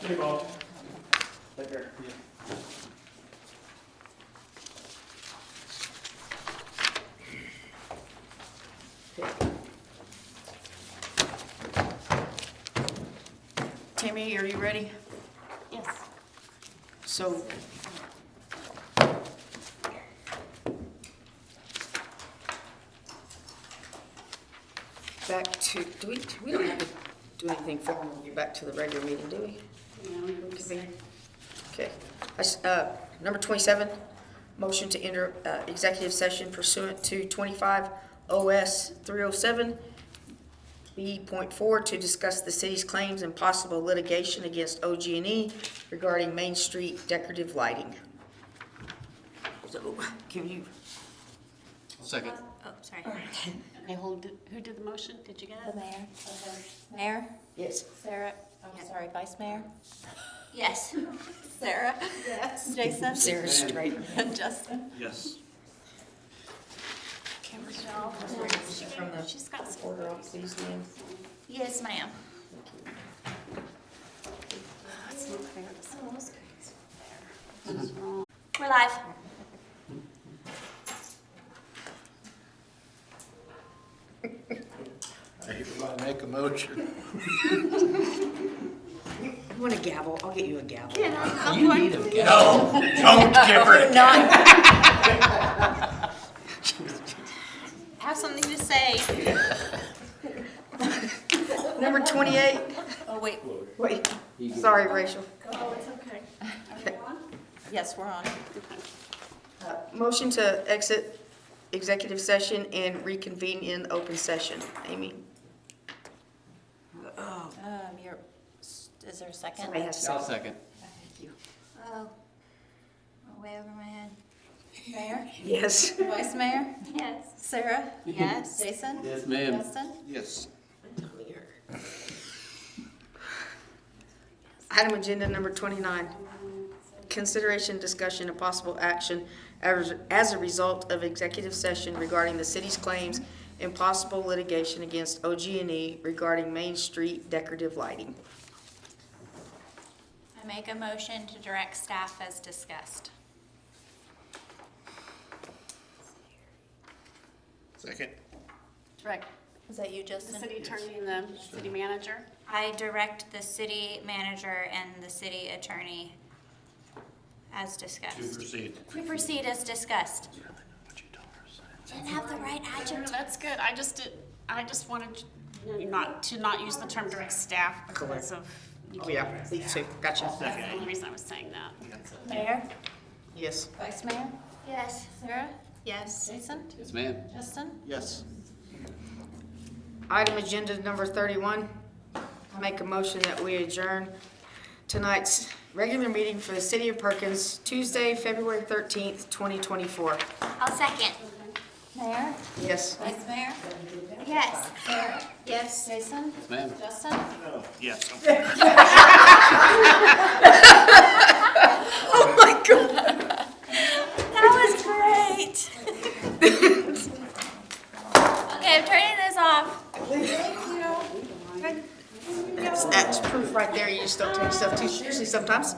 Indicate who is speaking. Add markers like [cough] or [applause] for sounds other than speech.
Speaker 1: Hey, Bob.
Speaker 2: Tammy, are you ready?
Speaker 3: Yes.
Speaker 2: So. Back to, do we, do we don't have to do anything formal, you're back to the regular meeting, do we? Okay. I s- uh, Number 27, motion to enter uh, executive session pursuant to 25 OS 307 B.4 to discuss the city's claims and possible litigation against OG&E E regarding Main Street decorative lighting. So can you,
Speaker 4: Second.
Speaker 3: Oh, sorry.
Speaker 5: Okay, who did, who did the motion? Did you
Speaker 6: The
Speaker 5: guys?
Speaker 6: mayor. Mayor?
Speaker 2: yes,
Speaker 6: Sarah, I'm sorry, vice mayor?
Speaker 3: Yes. Sarah? Yes. Jason?
Speaker 2: Sarah Straight.
Speaker 3: Justin?
Speaker 1: Yes.
Speaker 2: From the
Speaker 3: She's got some.
Speaker 2: order of these names.
Speaker 3: Yes, ma'am. We're live.
Speaker 4: Everybody make a motion.
Speaker 2: You want a gavel? I'll get you a gavel.
Speaker 4: You need a gavel. Don't give her a gavel.
Speaker 3: Have something to say.
Speaker 2: Number 28,
Speaker 3: Oh, wait.
Speaker 2: wait, sorry, Rachel.
Speaker 3: Oh, it's okay.
Speaker 6: Yes, we're on.
Speaker 2: Uh, Motion to exit executive session and reconvene in open session. Amy,
Speaker 6: Um, you're, is there a second?
Speaker 2: somebody has to.
Speaker 4: I'll second.
Speaker 3: Oh, I'm way over my head.
Speaker 6: Mayor?
Speaker 2: Yes.
Speaker 6: Vice mayor?
Speaker 3: Yes.
Speaker 6: Sarah?
Speaker 3: Yes.
Speaker 6: Jason?
Speaker 4: Yes, ma'am.
Speaker 6: Justin?
Speaker 4: Yes.
Speaker 2: Item agenda number 29, consideration, discussion, and possible action as as a result of executive session regarding the city's claims and possible litigation against OG&E E regarding Main Street decorative lighting.
Speaker 3: I make a motion to direct staff as discussed.
Speaker 4: Second.
Speaker 5: Direct,
Speaker 6: Was that you,
Speaker 5: the
Speaker 6: Justin?
Speaker 5: city attorney and the city manager?
Speaker 3: I direct the city manager and the city attorney as discussed.
Speaker 1: proceed.
Speaker 3: To proceed as discussed. Didn't have the right adjective.
Speaker 5: That's good. I just did, I just wanted you not, to not use the term direct staff because of. you
Speaker 2: Oh,
Speaker 5: can't
Speaker 2: yeah,
Speaker 5: direct
Speaker 2: me
Speaker 5: staff.
Speaker 2: too, gotcha.
Speaker 5: That's the only reason I was saying that.
Speaker 6: Mayor?
Speaker 2: Yes.
Speaker 6: Vice mayor?
Speaker 3: Yes.
Speaker 6: Sarah?
Speaker 3: Yes.
Speaker 6: Jason?
Speaker 4: Yes, ma'am.
Speaker 6: Justin?
Speaker 4: Yes.
Speaker 2: Item agenda number 31, I make a motion that we adjourn tonight's regular meeting for the city of Perkins, Tuesday, February 13th, 2024.
Speaker 3: I'll second.
Speaker 6: Mayor?
Speaker 2: Yes.
Speaker 6: Vice mayor?
Speaker 3: Yes.
Speaker 6: Yes. Jason?
Speaker 4: Yes, ma'am.
Speaker 6: Justin?
Speaker 1: Yes.
Speaker 2: Oh, my God.
Speaker 3: That was great. [laughs] Okay, I'm turning this off.
Speaker 2: That's proof right there, you just don't take yourself too seriously sometimes.